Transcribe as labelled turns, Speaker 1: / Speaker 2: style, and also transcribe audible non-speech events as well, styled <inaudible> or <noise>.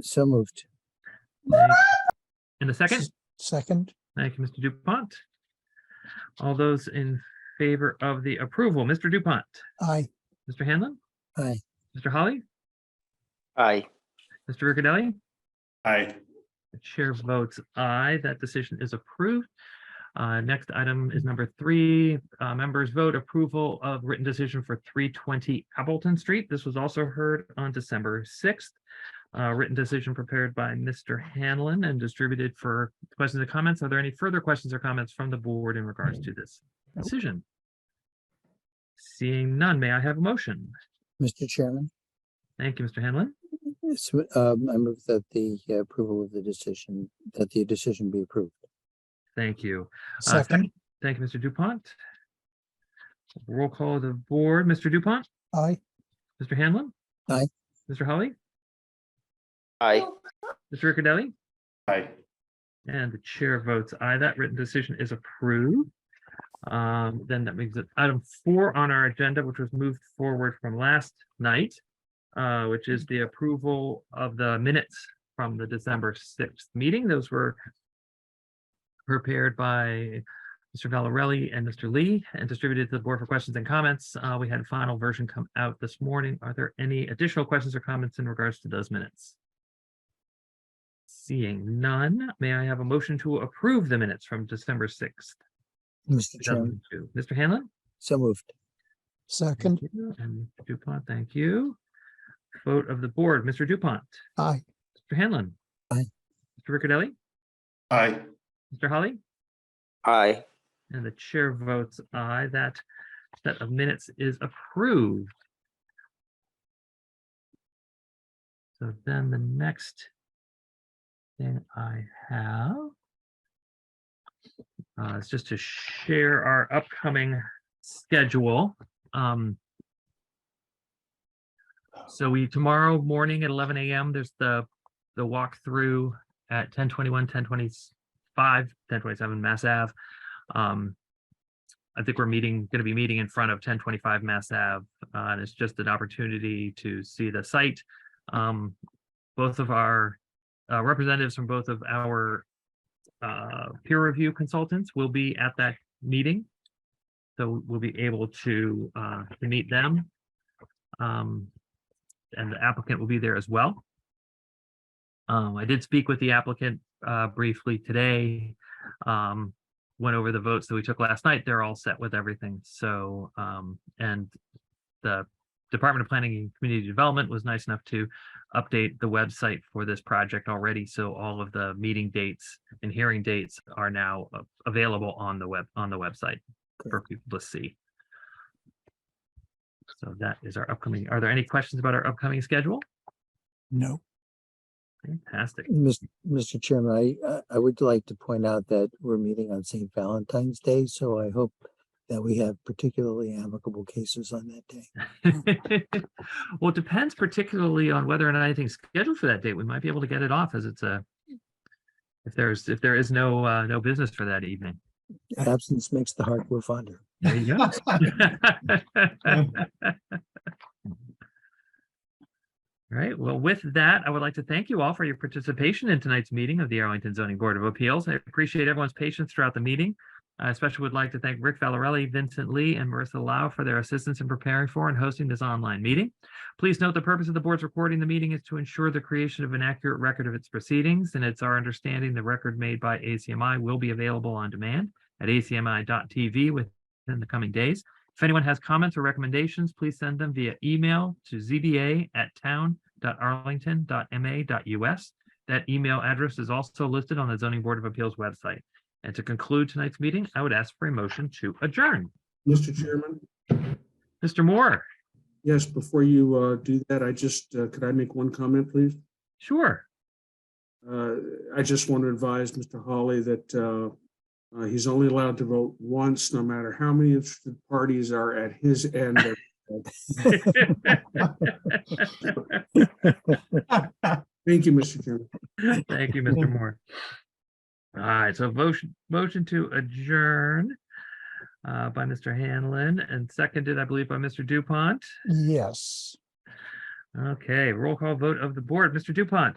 Speaker 1: So moved.
Speaker 2: In a second,
Speaker 3: Second,
Speaker 2: thank you, Mr. Dupont. All those in favor of the approval, Mr. Dupont,
Speaker 3: aye.
Speaker 2: Mr. Hanlon,
Speaker 1: Aye.
Speaker 2: Mr. Holly,
Speaker 4: Aye.
Speaker 2: Mr. Riccadelli?
Speaker 4: Aye.
Speaker 2: The chair votes aye. That decision is approved. Uh, Next item is number three. Uh, Members vote approval of written decision for 320 Appleton Street. This was also heard on December 6th. Uh, Written decision prepared by Mr. Hanlon and distributed for questions and comments. Are there any further questions or comments from the board in regards to this decision? Seeing none, may I have a motion?
Speaker 1: Mr. Chairman,
Speaker 2: Thank you, Mr. Hanlon.
Speaker 1: Yes, um, I move that the uh, approval of the decision, that the decision be approved.
Speaker 2: Thank you. Uh,
Speaker 3: Second,
Speaker 2: Thank you, Mr. Dupont. Roll call of the board. Mr. Dupont,
Speaker 3: aye.
Speaker 2: Mr. Hanlon.
Speaker 1: Aye.
Speaker 2: Mr. Holly,
Speaker 4: Aye.
Speaker 2: Mr. Riccadelli,
Speaker 4: Aye.
Speaker 2: and the chair votes aye. That written decision is approved. Um, then that makes it item four on our agenda, which was moved forward from last night, uh, which is the approval of the minutes from the December sixth meeting. Those were prepared by Mr. Valarelli and Mr. Lee and distributed to the board for questions and comments. Uh, we had a final version come out this morning. Are there any additional questions or comments in regards to those minutes? Seeing none, may I have a motion to approve the minutes from December sixth,
Speaker 1: Mr.
Speaker 2: two
Speaker 1: Chairman,
Speaker 2: thousand two? Mr. Hanlon?
Speaker 1: so moved.
Speaker 3: Second,
Speaker 2: Thank you. And Mr. Dupont, thank you. Vote of the board, Mr. Dupont,
Speaker 3: aye.
Speaker 2: Mr. Hanlon.
Speaker 1: Aye.
Speaker 2: Mr. Riccadelli,
Speaker 4: Aye.
Speaker 2: Mr. Holly?
Speaker 4: Aye.
Speaker 2: And the chair votes aye. That set of minutes is approved. So then the next thing I have uh, is just to share our upcoming schedule. Um, so we, tomorrow morning at eleven AM, there's the, the walkthrough at 1021, 1025, 1027 Mass Ave. Um, I think we're meeting, going to be meeting in front of ten twenty-five Mass Ave, uh, and it's just an opportunity to see the site. Um, both of our uh, representatives from both of our uh, peer review consultants will be at that meeting. So we'll be able to, uh, to meet them. Um, and the applicant will be there as well. Um, I did speak with the applicant, uh, briefly today. Um, went over the votes that we took last night, they're all set with everything. So, um, and the Department of Planning and Community Development was nice enough to update the website for this project already. So all of the meeting dates and hearing dates are now a- available on the web, on the website for people to see. So that is our upcoming, are there any questions about our upcoming schedule?
Speaker 3: No,
Speaker 2: Fantastic.
Speaker 1: Mis- Mr. Chairman, I, I- I would like to point out that we're meeting on St. Valentine's Day, so I hope that we have particularly amicable cases on that day.
Speaker 2: <laughs> well, it depends particularly on whether or not anything's scheduled for that date. We might be able to get it off as it's a if there's if there is no uh, no business for that evening.
Speaker 1: Absence makes the heart grow fonder.
Speaker 2: There you go. All right. Well, with that, I would like to thank you all for your participation in tonight's meeting of the Arlington Zoning Board of Appeals. I appreciate everyone's patience throughout the meeting. I especially would like to thank Rick Valarelli, Vincent Lee, and Marissa Lau for their assistance in preparing for and hosting this online meeting. Please note the purpose of the board's recording the meeting is to ensure the creation of an accurate record of its proceedings, and it's our understanding the record made by ACMI will be available on demand at acmi.tv with in the coming days. If anyone has comments or recommendations, please send them via email to zba@town.arlington.ma.us. That email address is also listed on the zoning board of appeals website. And to conclude tonight's meeting, I would ask for a motion to adjourn.
Speaker 5: Mr. Chairman,
Speaker 2: Mr. Moore,
Speaker 5: yes, before you uh, do that, I just, uh, could I make one comment, please?
Speaker 2: sure. <laughs>
Speaker 5: Uh, I just want to advise Mr. Hawley that uh, uh, he's only allowed to vote once, no matter how many interested parties are at his end. of-
Speaker 2: Thank
Speaker 5: Thank you, Mr. Chairman.
Speaker 2: you, Mr. Moore. All right, so motion, motion to adjourn uh, by Mr. Hanlon and seconded, I believe, by Mr. Dupont.
Speaker 3: <laughs> yes.
Speaker 2: Okay, roll call vote of the board. Mr. Dupont,